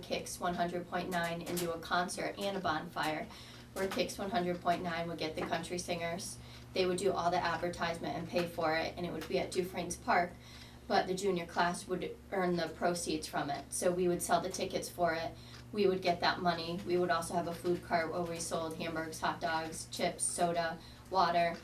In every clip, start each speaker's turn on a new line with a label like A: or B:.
A: Kix one hundred point nine into a concert and a bonfire, where Kix one hundred point nine would get the country singers. They would do all the advertisement and pay for it, and it would be at Dufrane's Park, but the junior class would earn the proceeds from it, so we would sell the tickets for it. We would get that money, we would also have a food cart where we sold hamburgers, hot dogs, chips, soda, water.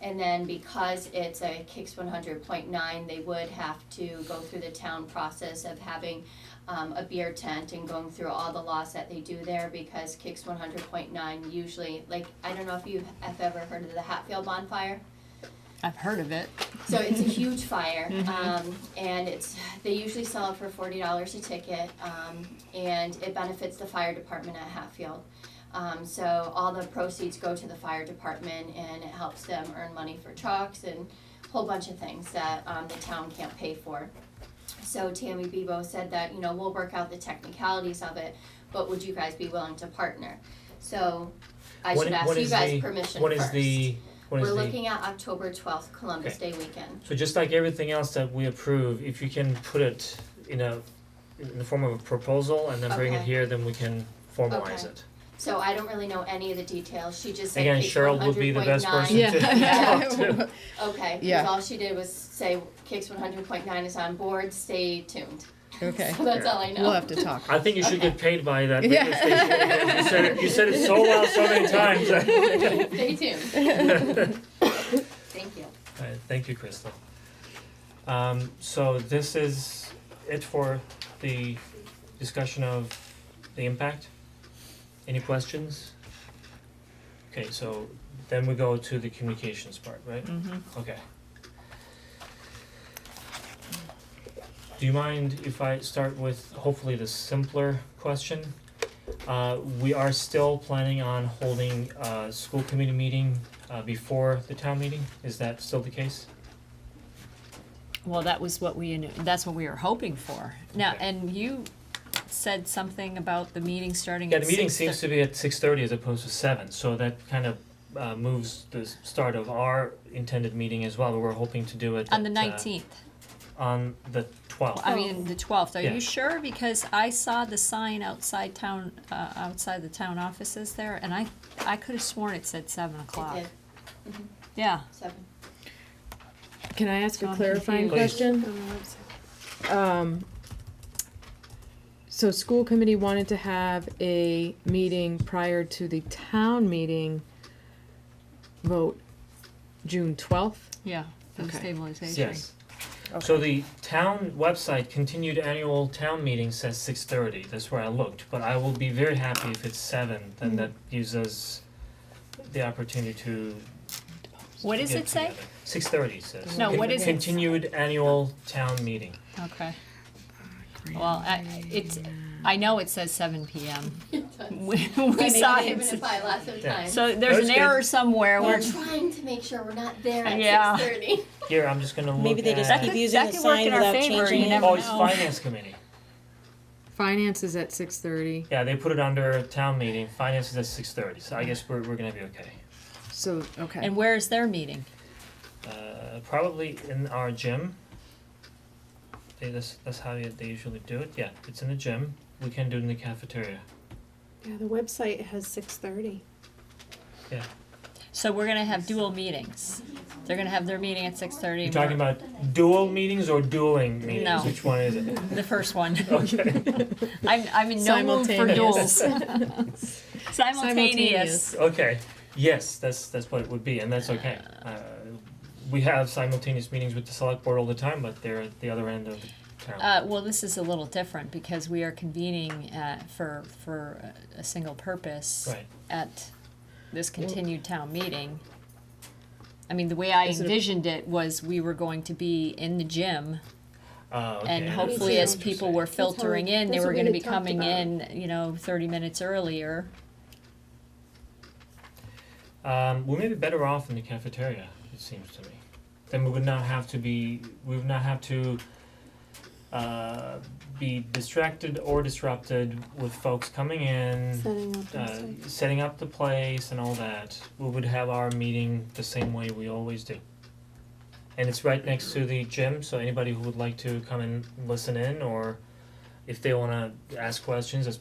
A: And then because it's a Kix one hundred point nine, they would have to go through the town process of having um, a beer tent and going through all the laws that they do there because Kix one hundred point nine usually, like, I don't know if you have ever heard of the Hatfield bonfire.
B: I've heard of it.
A: So it's a huge fire, um, and it's, they usually sell it for forty dollars a ticket, um, and it benefits the fire department at Hatfield. Um, so all the proceeds go to the fire department and it helps them earn money for trucks and a whole bunch of things that, um, the town can't pay for. So Tammy Bebo said that, you know, we'll work out the technicalities of it, but would you guys be willing to partner? So I
C: What
A: should
C: i-
A: ask
C: what
A: you
C: is
A: guys
C: the-
A: permission first.
C: What is the, what is
A: We're
C: the-
A: looking at October twelfth, Columbus Day weekend.
C: so just like everything else that we approve, if you can put it in a, in the form of a proposal and then bring it
A: Okay.
C: here, then we can formalize
A: Okay.
C: it.
A: So I don't really know any of the details. She just said
C: Again,
A: Kix
C: Cheryl would be the best
A: 100.9.
C: person to
B: Yeah.
C: talk to.
A: Okay, because
B: Yeah.
A: all she did was say Kix one hundred point nine is on board, stay tuned.
B: Okay.
A: So that's all I know.
B: We'll have to talk.
C: I think you should get paid by that
B: Yeah.
C: radio station. You said it, you said it so well so many times.
A: Stay tuned. Thank you.
C: Alright, thank you, Crystal. Um, so this is it for the discussion of the impact. Any questions? Okay, so then we go to the communications part, right? Okay. Do you mind if I start with hopefully the simpler question? Uh, we are still planning on holding a school committee meeting uh before the town meeting, is that still the case?
B: Well, that was what we, knew- that's what we were hoping for. Now,
C: Okay.
B: and you said something about the meeting starting
C: Yeah,
B: at
C: the
B: six.
C: meeting seems to be at six thirty as opposed to seven, so that kind of uh moves the s- start of our intended meeting as well, we're hoping to do it
B: On the
C: at, uh,
B: nineteenth,
C: On the twelfth,
B: I mean, the twelfth, are
C: Yeah.
B: you sure? Because I saw the sign outside town, uh, outside the town offices there, and I, I could have sworn it said seven o'clock.
A: I did,
B: Yeah,
A: seven.
D: Can I ask
B: So
D: a
B: I'm
D: clarifying
C: confused.
D: question? Um, so school committee wanted to have a meeting prior to the town meeting vote, June twelfth?
B: yeah, for the
D: Okay.
B: stabilization.
C: yes. So the town website continued annual town meeting says six thirty, that's where I looked, but I will be very happy if it's seven,
B: Mm.
C: then that gives us the opportunity to
B: What does it say?
C: Six thirty says.
B: No,
C: Con-
B: what is it?
C: Continued annual town meeting.
B: Okay. Well, I, it's, I know it says seven PM. We, we saw
A: I made
B: it.
A: it even by lots of
C: Yeah.
A: time.
B: So there's
C: That's
B: an
C: good.
B: error somewhere.
A: We're
B: We're,
A: trying to make sure we're not there
B: Yeah.
A: at six thirty.
C: Here, I'm just gonna look at.
E: Maybe they just keep using
B: that
E: the
B: could work
E: sign
B: in our
E: without
B: favor, you
E: changing it.
B: never-
C: Oh, it's
B: know.
C: finance committee.
D: Finance is at six thirty,
C: Yeah, they put it under town meeting, finance is at six thirty, so I guess we're we're gonna be okay.
D: so, okay.
B: and where is their meeting?
C: Uh, probably in our gym. They, that's that's how you- they usually do it, yeah, it's in the gym, we can do it in the cafeteria.
F: Yeah, the website has six thirty.
B: So we're gonna have dual meetings. They're gonna have their meeting at six thirty.
C: You're talking about dual meetings or dueling
B: No.
C: meetings, which one is it?
B: The first one.
C: Okay,
B: I'm, I'm in no mood for duels.
D: Simultaneous.
B: Simultaneous.
C: okay, yes, that's that's what it would be, and that's okay. Uh, we have simultaneous meetings with the select board all the time, but they're at the other end of the town.
B: Uh, well, this is a little different because we are convening, uh, for, for a- a single purpose.
C: Right.
B: at this continued town meeting. I mean, the way I envisioned it was we were going to be in the gym
C: Oh, okay.
B: and
C: I
B: hopefully
C: understand
B: as
C: what you're
B: people
C: saying.
B: were
F: how-
B: filtering in, they
F: that's
B: were
F: what
B: gonna
F: we
B: be
F: had talked
B: coming
F: about.
B: in, you know, thirty minutes earlier.
C: Um, we may be better off in the cafeteria, it seems to me. Then we would not have to be, we would not have to uh, be distracted or disrupted with folks coming in,
F: Setting up
C: uh, setting up the place and all that. We would have our meeting the same way we always do. And it's right next to the gym, so anybody who would like to come and listen in or if they wanna ask questions as